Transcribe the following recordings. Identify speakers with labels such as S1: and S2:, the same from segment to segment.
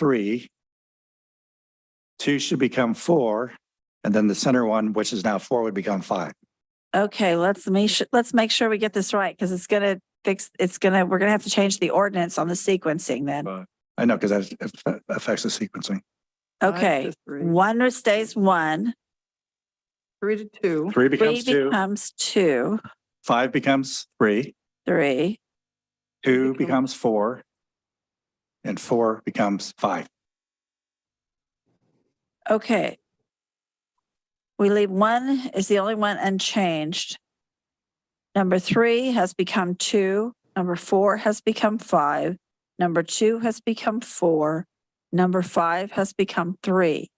S1: three. Two should become four, and then the center one, which is now four, would become five.
S2: Okay, let's make sure, let's make sure we get this right because it's gonna fix, it's gonna, we're gonna have to change the ordinance on the sequencing then.
S1: I know, because that affects the sequencing.
S3: Five to
S2: Okay,
S3: three.
S2: one stays one,
S3: Three to two,
S1: Three
S2: three
S1: becomes two,
S2: becomes two,
S1: five becomes three,
S2: three.
S1: two
S3: become-
S1: becomes four, and four becomes five.
S2: Okay. We leave one is the only one unchanged. Number three has become two, number four has become five, number two has become four, number five has become three.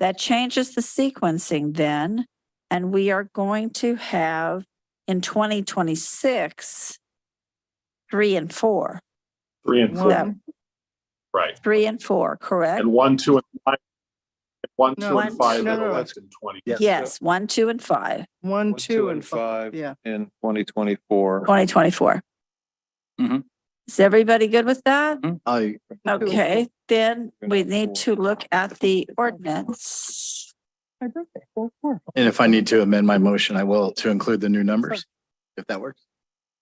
S2: That changes the sequencing then, and we are going to have in twenty twenty-six, three and four,
S4: Three and four,
S3: one,
S2: Seven.
S4: right.
S2: three and four, correct?
S4: And one, two, and five. and One,
S3: No,
S4: two, and
S2: one,
S4: five
S3: no,
S4: are
S3: no, no.
S4: elected in twenty.
S2: Yes, one, two, and five.
S3: one, two and five. Yeah.
S5: in twenty twenty-four.
S2: Twenty twenty-four.
S1: Mhm.
S2: Is everybody good with that?
S5: I.
S2: Okay, then we need to look at the ordinance.
S6: And if I need to amend my motion, I will to include the new numbers, if that works.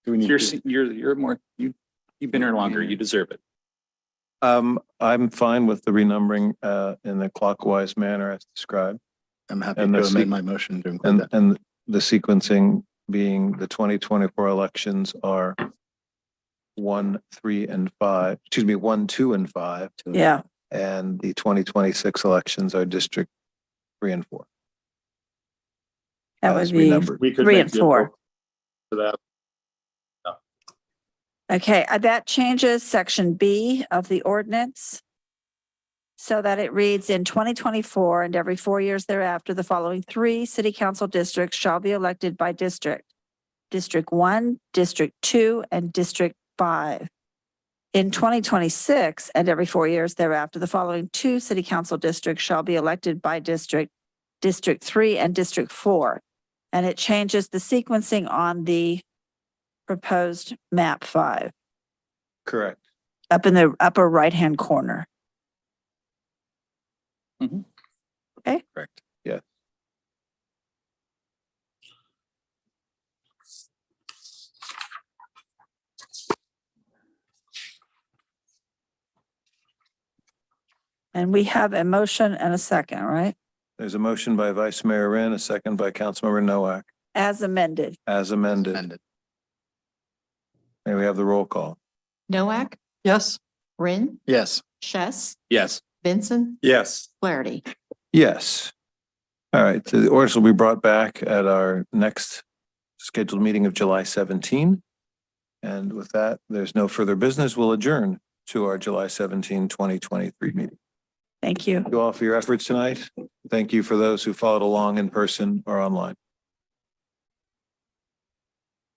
S6: Do we need
S7: You're,
S6: to-
S7: se- you're, you're more, you, you've been here longer. You deserve it.
S5: Um, I'm fine with the renumbering, uh, in the clockwise manner as described
S6: I'm happy
S5: and the
S6: to
S5: sec-
S6: amend my motion to include
S5: and,
S6: that.
S5: and the sequencing being the twenty twenty-four elections are one, three, and five, excuse me, one, two, and five.
S2: Yeah,
S5: And the twenty twenty-six elections are district three and four.
S2: that would
S5: as
S2: be,
S5: renumbered.
S4: We could
S2: Three
S4: make
S2: and
S4: the
S2: four.
S4: To that,
S2: okay, uh, that changes section B of the ordinance. So that it reads in twenty twenty-four and every four years thereafter, the following three city council districts shall be elected by district. District one, district two, and district five. In twenty twenty-six and every four years thereafter, the following two city council districts shall be elected by district, District three and District four. And it changes the sequencing on the proposed map five,
S5: Correct.
S2: up in the upper right-hand corner.
S5: Mm-hmm. Correct. Yeah.
S2: And we have a motion and a second, right?
S5: There's a motion by Vice Mayor Rin, a second by Councilmember Noack,
S2: As amended.
S5: as amended.
S6: Amended.
S5: And we have the roll call.
S8: Noack,
S3: Yes.
S8: Rin,
S6: Yes,
S8: Chess,
S7: Yes.
S8: Vincent,
S4: yes,
S8: Flaherty.
S5: Yes. All right, so the orders will be brought back at our next scheduled meeting of July 17. And with that, there's no further business. We'll adjourn to our July 17, 2023 meeting.
S2: Thank you.
S5: Thank you all for your efforts tonight. Thank you for those who followed along in person or online.